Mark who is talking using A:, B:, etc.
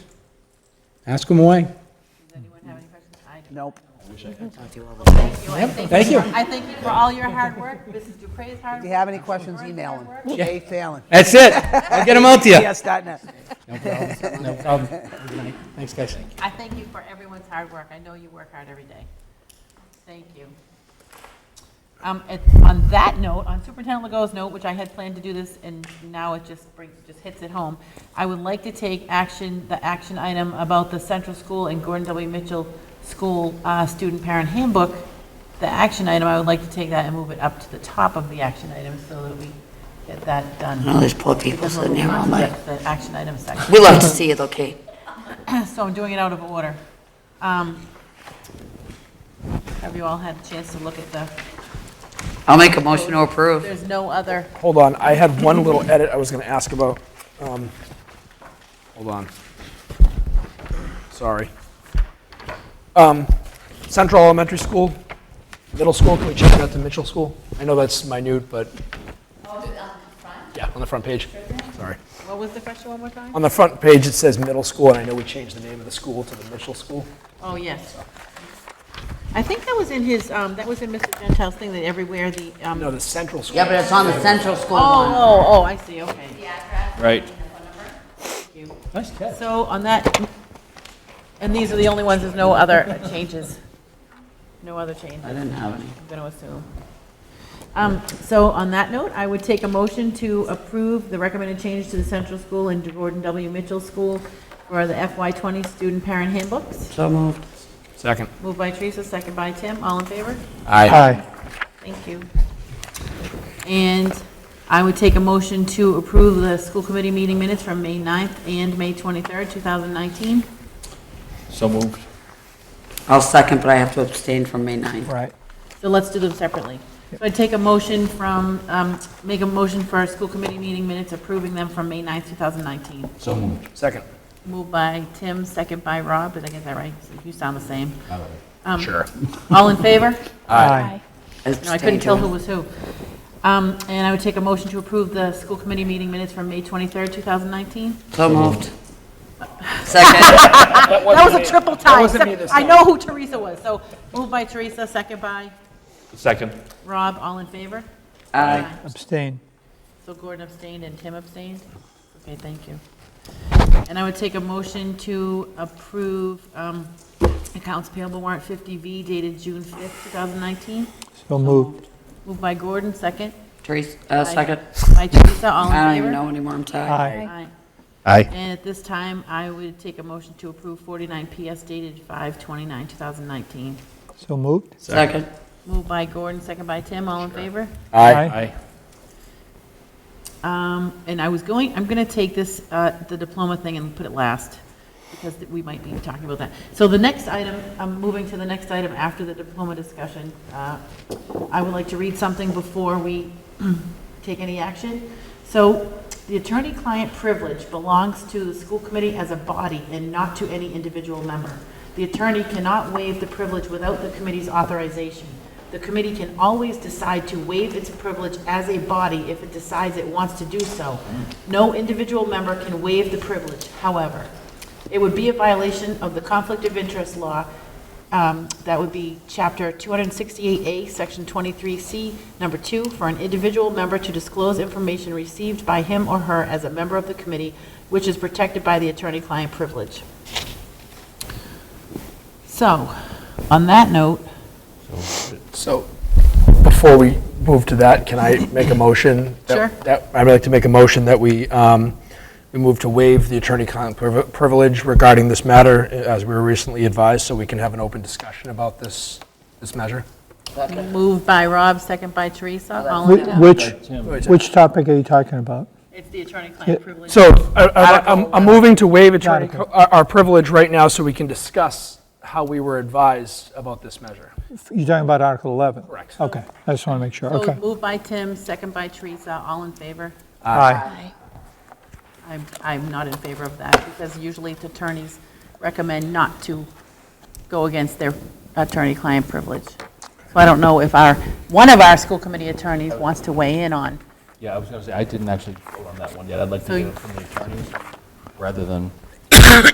A: Ask them away.
B: Anyone have any questions? I do.
C: Nope.
A: Thank you.
B: I thank you for all your hard work, Mrs. Dupre's hard work.
C: If you have any questions, email him. Jay Fallon,
A: That's it. I'll get them out to you.
C: PS.net.
A: No problem. No problem. Good night. Thanks, guys.
B: I thank you for everyone's hard work. I know you work hard every day. Thank you. Um, it- On that note, on Superintendent Legault's note, which I had planned to do this, and now it just brings, just hits it home, I would like to take action, the action item about the Central School and Gordon W. Mitchell School uh, Student Parent Handbook. The action item, I would like to take that and move it up to the top of the action item so that we get that done.
D: Oh, there's poor people sitting there all night.
B: The action item section.
D: We love to see it, okay?
B: So I'm doing it out of order. Um, Have you all had a chance to look at the,
D: I'll make a motion to approve.
B: there's no other,
E: Hold on, I had one little edit I was going to ask about. Um, Hold on. Sorry. Um, Central Elementary School, Middle School, can we change that to Mitchell School? I know that's minute, but. Yeah, on the front page. Sorry.
B: what was the question one more time?
E: On the front page, it says Middle School, and I know we changed the name of the school to the Mitchell School.
B: Oh, yes. I think that was in his, um, that was in Mr. Gentile's thing that everywhere the, um,
E: No,
B: oh,
E: the Central School.
D: Yeah, but it's on the central school one.
B: oh, oh, I see, okay.
F: Right.
B: Thank you.
A: Nice catch.
B: So on that, and these are the only ones, there's no other changes. No other changes.
D: I didn't have any.
B: I'm going to assume. Um, So on that note, I would take a motion to approve the recommended change to the Central School and Gordon W. Mitchell School for the FY20 student parent handbooks.
D: So moved.
F: Second.
B: Moved by Teresa, second by Tim. All in favor?
F: Aye.
B: Thank you. And I would take a motion to approve the school committee meeting minutes from May 9th and May 23rd, 2019.
F: So moved.
D: I'll second, but I have to abstain from May 9th.
E: Right.
B: So let's do them separately. So I'd take a motion from, um, make a motion for our school committee meeting minutes approving them from May 9th, 2019.
F: So moved.
E: Second.
B: Moved by Tim, second by Rob, did I get that right? You sound the same. Um,
F: Sure.
B: All in favor?
E: Aye.
B: No, I couldn't tell who was who. Um, And I would take a motion to approve the school committee meeting minutes from May 23rd, 2019.
D: So moved. Second.
B: That was a triple tie.
E: wasn't me this
B: I know who Teresa was, so moved by Teresa, second by
F: Second.
B: Rob, all in favor?
D: Aye.
G: Abstain.
B: So Gordon abstained and Tim abstained? Okay, thank you. And I would take a motion to approve um, accounts payable warrant 50V dated June 5th, 2019.
G: So moved.
B: Moved by Gordon, second.
D: Teresa, uh, second.
B: By Teresa, all in favor?
D: I don't even know anymore, I'm tired.
G: Aye.
B: Aye.
F: Aye.
B: And at this time, I would take a motion to approve 49 PS dated 5/29/2019.
G: So moved.
D: Second.
B: Moved by Gordon, second by Tim, all in favor?
G: Aye.
F: Aye.
B: Um, and I was going, I'm going to take this, uh, the diploma thing and put it last, because we might be talking about that. So the next item, I'm moving to the next item after the diploma discussion. Uh, I would like to read something before we take any action. So the attorney-client privilege belongs to the school committee as a body and not to any individual member. The attorney cannot waive the privilege without the committee's authorization. The committee can always decide to waive its privilege as a body if it decides it wants to do so. No individual member can waive the privilege, however. It would be a violation of the conflict of interest law. um, That would be Chapter 268A, Section 23C, Number 2, for an individual member to disclose information received by him or her as a member of the committee, which is protected by the attorney-client privilege. So, on that note,
E: So, before we move to that, can I make a motion? that-
B: Sure.
E: that- I'd like to make a motion that we, um, we move to waive the attorney-client priv- privilege regarding this matter, uh, as we were recently advised, so we can have an open discussion about this, this measure.
B: moved by Rob, second by Teresa, all in
G: Wh-
B: favor?
G: Which, which topic are you talking about?
B: It's the attorney-client privilege.
E: So, I- I- I'm, I'm moving to waive attorney,
G: Article.
E: our our privilege right now, so we can discuss how we were advised about this measure.
G: You're talking about Article 11?
E: Correct.
G: Okay, I just want to make sure,
B: So
G: okay.
B: moved by Tim, second by Teresa, all in favor?
G: Aye.
B: I'm, I'm not in favor of that, because usually the attorneys recommend not to go against their attorney-client privilege. So I don't know if our, one of our school committee attorneys wants to weigh in on.
F: Yeah, I was gonna say, I didn't actually vote on that one yet. I'd like to
B: So
F: hear
B: you-
F: it from the attorneys rather than